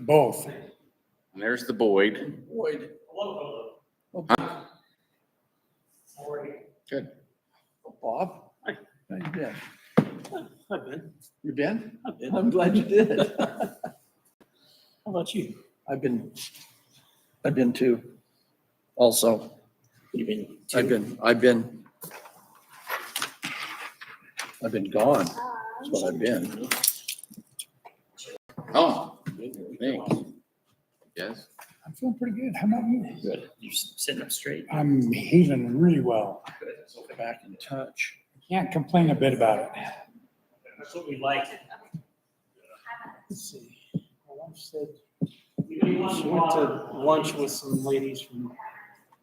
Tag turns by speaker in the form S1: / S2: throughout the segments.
S1: Both.
S2: And there's the Boyd.
S3: Boyd.
S1: Good. Bob?
S3: Hi.
S1: How you been?
S3: I've been,
S1: You been?
S3: I've been.
S1: I'm glad you did.
S3: How about you?
S1: I've been, I've been too, also.
S3: You've been.
S1: I've been, I've been, I've been gone. That's what I've been.
S2: Oh, thanks. Yes.
S4: I'm feeling pretty good. How about you?
S3: Good. You're s- sitting up straight.
S4: I'm healing really well.
S1: Back in touch.
S4: Can't complain a bit about it.
S3: That's what we like.
S4: Let's see. My wife said,
S3: We went to lunch with some ladies from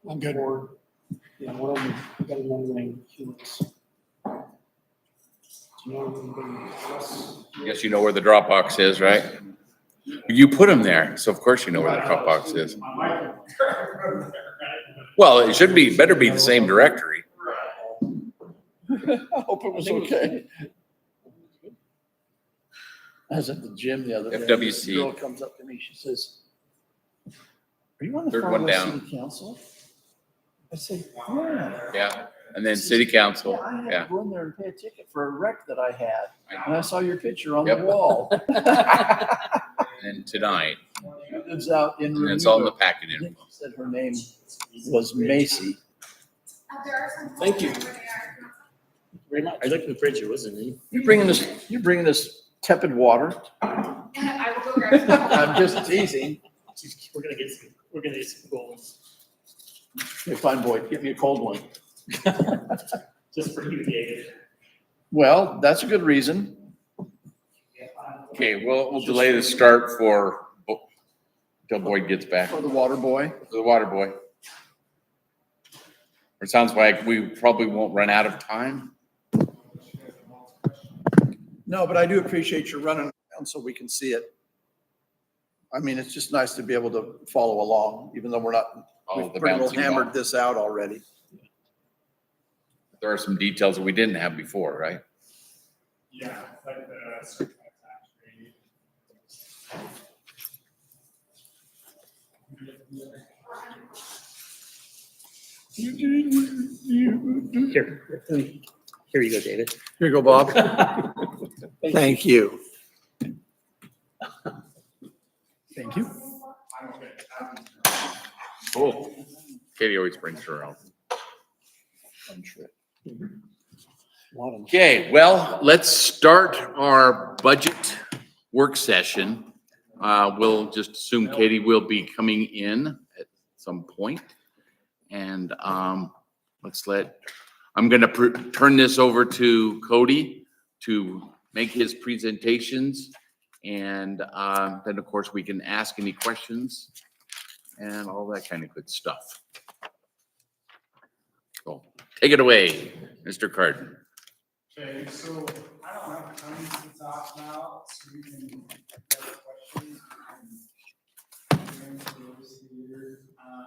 S4: I'm good.
S3: Ford. Yeah, one of them, I got another name, Helix. Do you know anybody else?
S2: I Guess you know where the Dropbox is, right? You put them there, so of course you know where the Dropbox is. Well, it should be, better be the same directory.
S1: I hope it was okay. I was at the gym the other day. This
S2: FWC.
S1: Girl comes up to me, she says, are you on the
S2: Third
S1: Far
S2: one
S1: West
S2: down.
S1: City Council? I said, yeah.
S2: Yeah. And then city council,
S1: I had
S2: yeah.
S1: to go in there and pay a ticket for a wreck that I had.
S2: I-
S1: And I saw your picture on
S2: Yep.
S1: the wall.
S2: And then tonight,
S1: It Lives out in.
S2: and it's all in the
S1: Remuda.
S2: packet.
S1: I
S2: info.
S1: think she Said her name was Macy.
S3: Thank you. Very much. I looked at the fridge, it wasn't in.
S1: You're bringing this, you're bringing this tepid water.
S5: I will go grab some.
S1: I'm just teasing.
S3: Jeez, We're gonna get some, we're gonna get some goals
S1: Hey, fine boy, get me a cold one.
S3: just for you, David.
S1: Well, that's a good reason.
S2: Okay, we'll, we'll delay the start for, Bo- till Boyd gets back,
S1: For the water boy.
S2: the water boy. It sounds like we probably won't run out of time.
S1: No, but I do appreciate your running around so we can see it. I mean, it's just nice to be able to follow along, even though we're not,
S2: All
S1: we've
S2: the
S1: pretty well
S2: bouncing ball.
S1: hammered this out already.
S2: There are some details that we didn't have before, right?
S6: Yeah, like the certified tax rate.
S3: Here, here you go, David.
S1: Here you go, Bob. Thank you.
S4: Thank you.
S6: I don't think that-
S2: Cool. Katie always brings her own.
S1: Lot of-
S2: Okay, well, let's start our budget work session. Uh, we'll just assume Katie will be coming in at some point. And, um, let's let, I'm gonna pr- turn this over to Cody to make his presentations. And, uh, then of course, we can ask any questions and all that kind of good stuff. So, take it away, Mr. Carden.
S6: Okay, so I don't have tons to talk about, so you can get questions. we can go into those here. Um,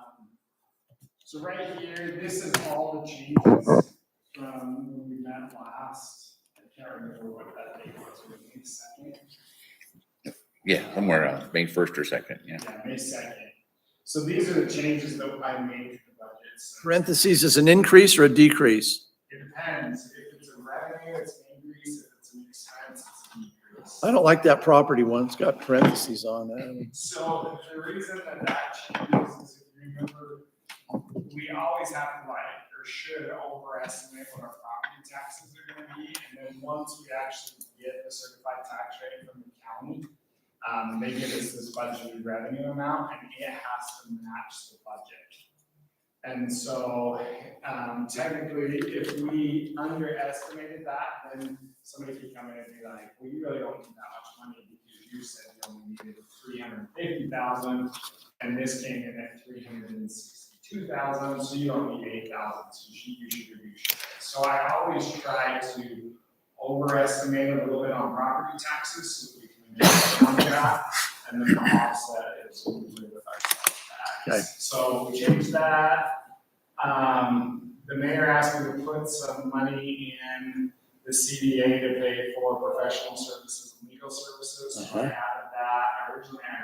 S6: So right here, this is all the changes from when we met last. I can't remember what that date was, was it May second?
S2: Yeah, somewhere else, May first or second, yeah.
S6: Yeah, May second. So these are the changes that I made to the budget. So
S1: Parentheses is an increase or a decrease?
S6: It depends. If it's a revenue, it's an increase. If it's an expense, it's an decrease.
S1: I don't like that property one. It's got parentheses on it.
S6: So the reason that that changes is if you remember, we always have to like, or should overestimate what our property taxes are gonna be. And then once we actually get the certified tax rate from the county, um, they give us this budgeted revenue amount and it has to match the budget. And so, um, technically, if we underestimated that, then somebody could come in and be like, well, you really don't need that much money because you said you only needed three hundred fifty thousand, and this came in at three hundred and sixty-two thousand, so you don't need eight thousand, so you should, you should reduce it. So I always try to overestimate a little bit on property taxes, so that we can adjust on that, and then the offset is usually with our
S1: Okay.
S6: tax. So we changed that, um, the mayor asked me to put some money in the CDA to pay for professional services and legal services. So I added that, originally I